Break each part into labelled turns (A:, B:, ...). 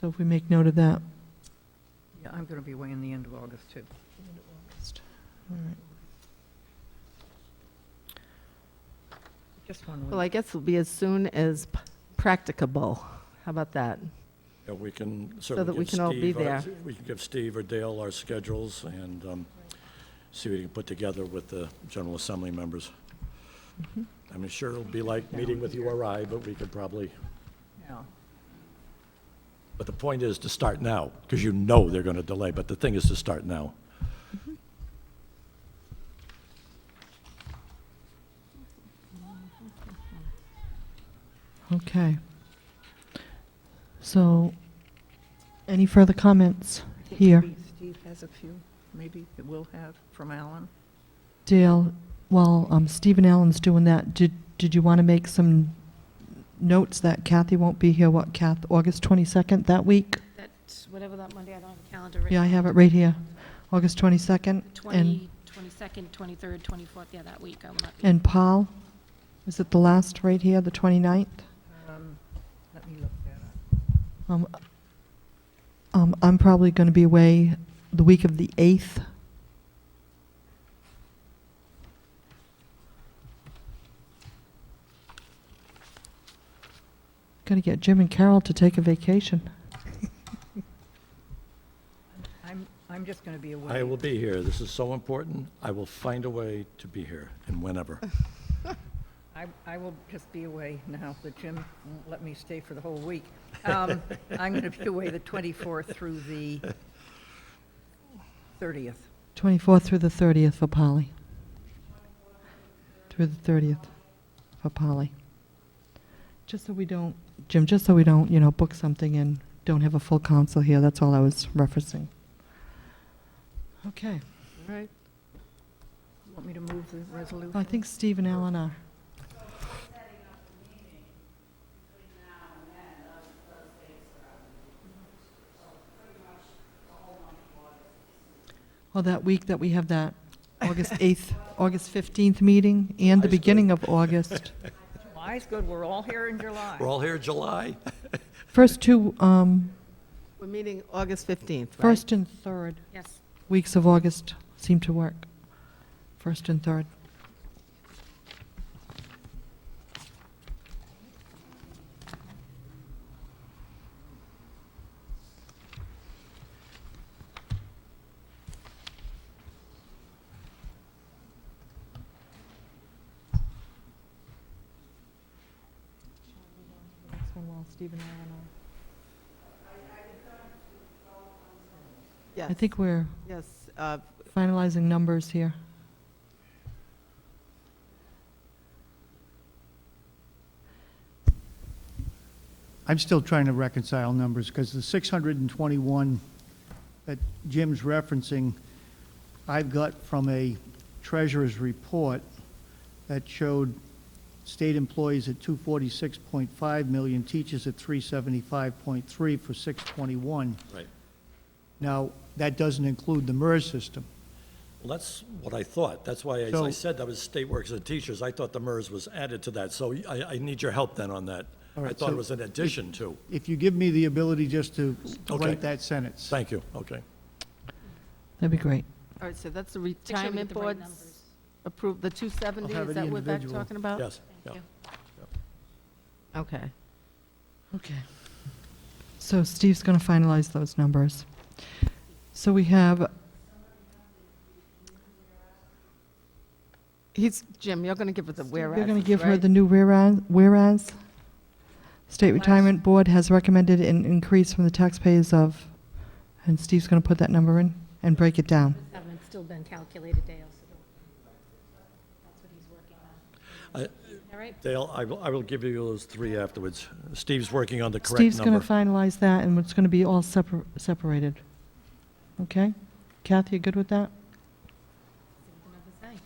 A: So if we make note of that.
B: Yeah, I'm going to be away in the end of August, too.
A: All right.
B: Just one
C: Well,
B: week.
C: I guess it'll be as soon as p- practicable. How about that?
D: Yeah, we can,
C: So that
D: certainly
C: we
D: give
C: can all be
D: Steve, our-
C: there.
D: we can give Steve or Dale our schedules and um, see what he can put together with the General Assembly members.
C: Mm-hmm.
D: I mean, sure, it'll be like meeting with URI, but we could probably,
B: Yeah.
D: but the point is to start now, because you know they're going to delay, but the thing is to start now.
A: Okay. So, any further comments
B: I think
A: here?
B: maybe Steve has a few, maybe, that we'll have from Alan.
A: Dale, while um, Stephen Allen's doing that, did, did you want to make some notes that Kathy won't be here, what, Kath, August 22nd, that week?
E: That's whatever that Monday, I don't have a calendar written.
A: Yeah, I have it right here, August 22nd. And,
E: 20, 22nd, 23rd, 24th, yeah, that week I will not be.
A: and Paul, is it the last right here, the 29th?
B: Um, Let me look that up.
A: Um, um, I'm probably going to be away the week of the 8th. Got to get Jim and Carol to take a vacation.
B: I'm, I'm just going to be away.
D: I will be here. This is so important. I will find a way to be here and whenever.
B: I, I will just be away now that Jim won't let me stay for the whole week. Um, I'm going to be away the 24th through the 30th.
A: 24th through the 30th for Polly. Through the 30th for Polly. Just so we don't, Jim, just so we don't, you know, book something and don't have a full council here, that's all I was referencing. Okay,
C: All right.
B: You Want me to move the resolution?
A: I think Steve and Ellen are. Well, that week that we have that August 8th, August 15th meeting and the
D: Iceberg.
A: beginning of August.
B: July's good, we're all here in July.
D: We're all here July.
A: First two, um,
C: We're meeting August 15th, right?
A: first and third
E: Yes,
A: weeks of August seem to work. First and third. I
C: Yes,
A: think we're
C: yes. uh,
A: finalizing numbers here.
F: I'm still trying to reconcile numbers, because the 621 that Jim's referencing, I've got from a treasurer's report that showed state employees at 246.5 million, teachers at 375.3 for 621.
D: Right.
F: Now, that doesn't include the MERS system.
D: Well, that's what I thought. That's why I- I
F: So-
D: said that was state workers and teachers. I thought the MERS was added to that, so I, I need your help then on that.
F: All
D: I
F: right,
D: thought it
F: so
D: was an addition to.
F: If you give me the ability just to
D: Okay.
F: write that sentence.
D: Thank you, okay.
A: That'd be great.
C: All right, so that's the
E: Make sure we get
C: retirement
E: the right
C: boards
E: numbers.
C: approved, the 270,
F: I'll
C: is
F: have it
C: that what that's
F: individual.
C: talking
B: Oh,
C: about?
D: Yes, yeah.
E: thank you.
C: Okay.
A: Okay. So Steve's going to finalize those numbers. So we have,
C: He's, Jim, you're going to give her the whereas,
A: you're going to give her the new whereas, whereas? State Retirement Board has recommended an increase from the taxpayers of, and Steve's going to put that number in and break it down.
E: Haven't still been calculated, Dale, so don't- that's what he's working
D: I-
E: on. All right,
D: Dale, I will, I will give you those three afterwards. Steve's working on the correct number.
A: Steve's going to finalize that, and it's going to be all separ- separated. Okay? Kathy, you good with that?
E: see what the numbers say.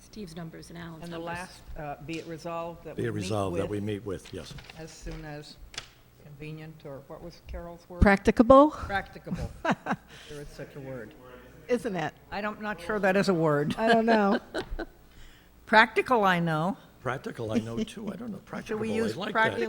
E: Steve's numbers and Alan's numbers.
B: And the last, uh, be it resolved that we
D: Be it
B: meet
D: resolved that we
B: with
D: meet with, yes.
B: as soon as convenient, or what was Carol's word?
C: Practicable,
B: Practicable. There is such a word.
C: isn't it?
B: I don't, not sure that is a word.
C: I don't know.
B: Practical, I know.
D: Practical, I know too, I don't know, practical, I
B: use
D: like that.
B: practical